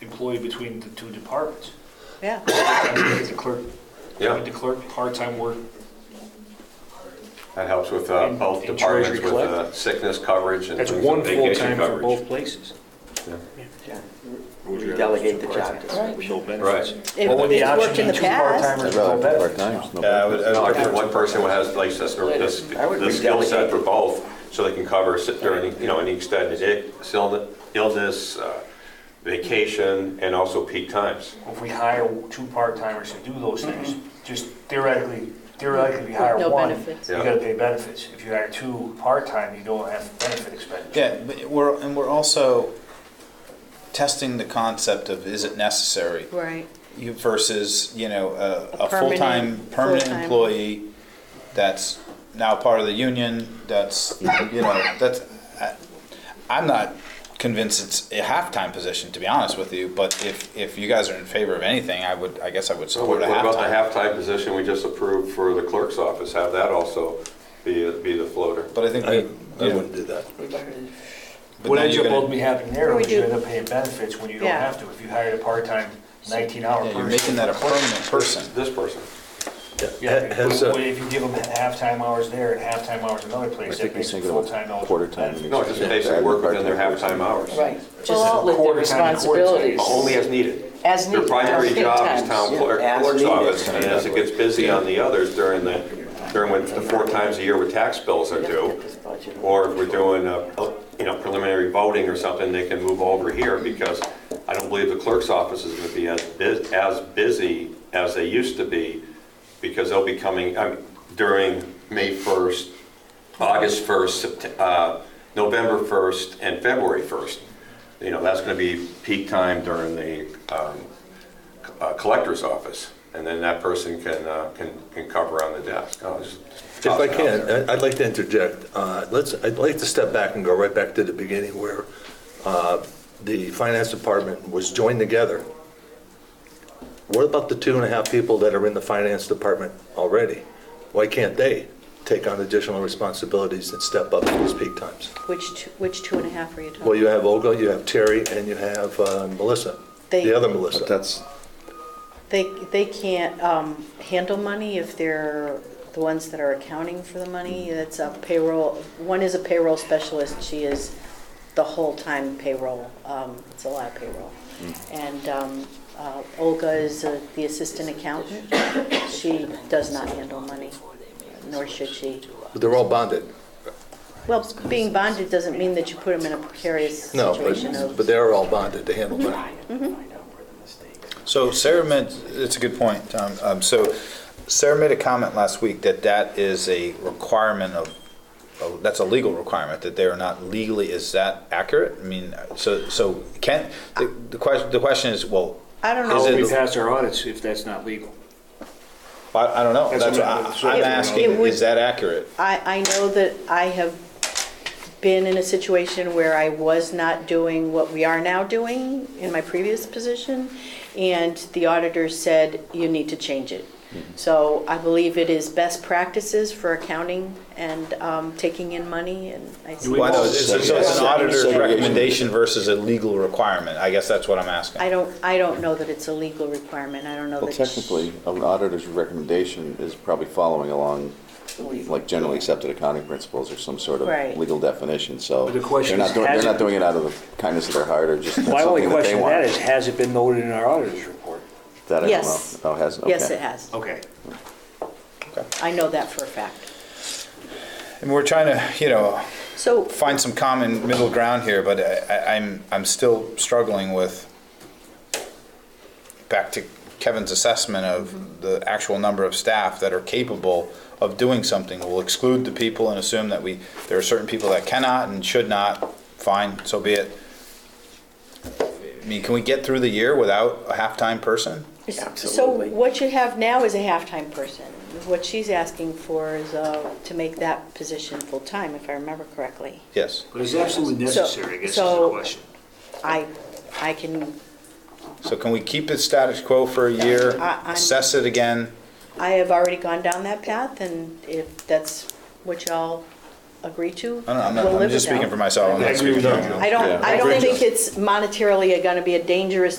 employee between the two departments. Yeah, The clerk, Yeah, the clerk, part-time work, that helps with uh, And- both and departments Treasury with uh, sickness coverage and that's things one like full-time vacation for both coverage. places. We delegate the job. With no Right. benefits. It- Well, would the it's option worked in be the two part-timers I'd with rather no have benefits? part-timers, no Yeah, I would, benefits. I would like to have one person who has like this, or this, I would this skill set redelegate. for both, so they can cover sit during, you know, any extended ill- illness, uh, vacation, and also peak times. If we hire two part-timers to do those things, just theoretically, theoretically, if you hire No one, you benefits. Yeah. gotta pay benefits. If you hire two part-time, you don't have benefit expenditure. Yeah, but we're, and we're also testing the concept of is it necessary right. You versus, you know, a, A a full-time, permanent- permanent full-time. employee that's now part of the union, that's, you know, that's, I- I'm not convinced it's a half-time position, to be honest with you, but if, if you guys are in favor of anything, I would, I guess I would So what support a what about the Oh, half-time. half-time position we just approved for the clerk's office, have that also be, be the floater? But I think, I, I we- you know, wouldn't do that. but What now ends you're up gonna, ultimately happening there We is you do. end up paying benefits when you don't Yeah. have to. If you hired a part-time nineteen-hour yeah, person. you're making that a permanent person. This person. Yeah, Ha- but has, uh, if you give them halftime hours there and halftime hours another I place, think that he's makes it thinking about full-time eligible. quarter-time. benefits. No, just basically work within their half-time hours. Right, just Well, split their quarter time to quarter time. responsibilities. Only as needed. As Their needed, primary as needed job is times. town clerk, Yeah, as clerk's needed. office, and as it gets busy on the others during the, during when the four times a year with tax bills are due, or if we're doing, uh, you know, preliminary voting or something, they can move over here, because I don't believe the clerk's office is gonna be as bus, as busy as they used to be, because they'll be coming, I mean, during May first, August 1st, Sept- uh, November 1st, and February 1st. You know, that's going to be peak time during the um, c- uh, collector's office, and then that person can, uh, can can cover on the desk. I'll just If toss I it out can, uh, there. I- I'd like to interject. Uh, Let's, I'd like to step back and go right back to the beginning where uh, the finance department was joined together. What about the two and a half people that are in the finance department already? Why can't they take on additional responsibilities and step up in these peak times? Which, two- which two and a half are you Well, talking? you have Olga, you have Terry, and you have uh, Melissa, They- the other But Melissa. that's, They, they can't um, handle money if they're the ones that are accounting for the money. That's a payroll, one is a payroll specialist, she is the whole-time payroll. Um, It's a lot of payroll. Hmm. And um, uh, Olga is uh, the assistant accountant. She does not handle money, nor should she. But They're all bonded. Well, being bonded doesn't mean that you put them in a precarious No, situation but, of. but they're all bonded to handle uh, money. Mm-hmm. So Sarah made, it's a good point, Tom. Um, So Sarah made a comment last week that that is a requirement of, of- that's a legal requirement, that they are not legally, is that accurate? I mean, so, so can, the, the question, the question is, well, I don't Is How know. it- will we pass our audits if that's not legal? I, I don't know. That's That's what what- I- that's what I'm I'm- asking, It would- is that accurate? I, I know that I have been in a situation where I was not doing what we are now doing in my previous position, and the auditor said, you need to change it. So I believe it is best practices for accounting and um, taking in money, and I Do we Well, I know, know- it's- it's so it's an Yeah. auditor's Segregation. recommendation versus a legal requirement. I guess that's what I'm asking. I don't, I don't know that it's a legal requirement, I don't know that. well, technically, an auditor's recommendation is probably following along, like generally accepted accounting principles or some sort Right. of legal definition, so. But the question they're not is, doing- has They're it- not doing it out of the kindness of their heart or just that's My only something that they question to that is, want. has it been noted in our auditor's report? That I don't Yes. know. Oh, has, okay. Yes, it has. Okay. I know that for a fact. And we're trying to, you know, So find some common middle ground here, but I, I- I'm, I'm still struggling with, back to Kevin's assessment Mm-hmm. of the actual number of staff that are capable of doing something. We'll exclude the people and assume that we, there are certain people that cannot and should not, fine, so be it. I mean, can we get through the year without a half-time person? So what you have now is a half-time person. What she's asking for is uh, to make that position full-time, if I remember correctly. Yes. But it's absolutely So- necessary, I guess is the so- question. I, I can, So can we keep it status quo for a year, I- I'm- assess it again? I have already gone down that path, and if that's what y'all agree to, I don't know, I'm not, we'll I'm live just with speaking that. for myself. I'm I not agree with speaking you. for- I don't, I don't think it's monetarily gonna be a dangerous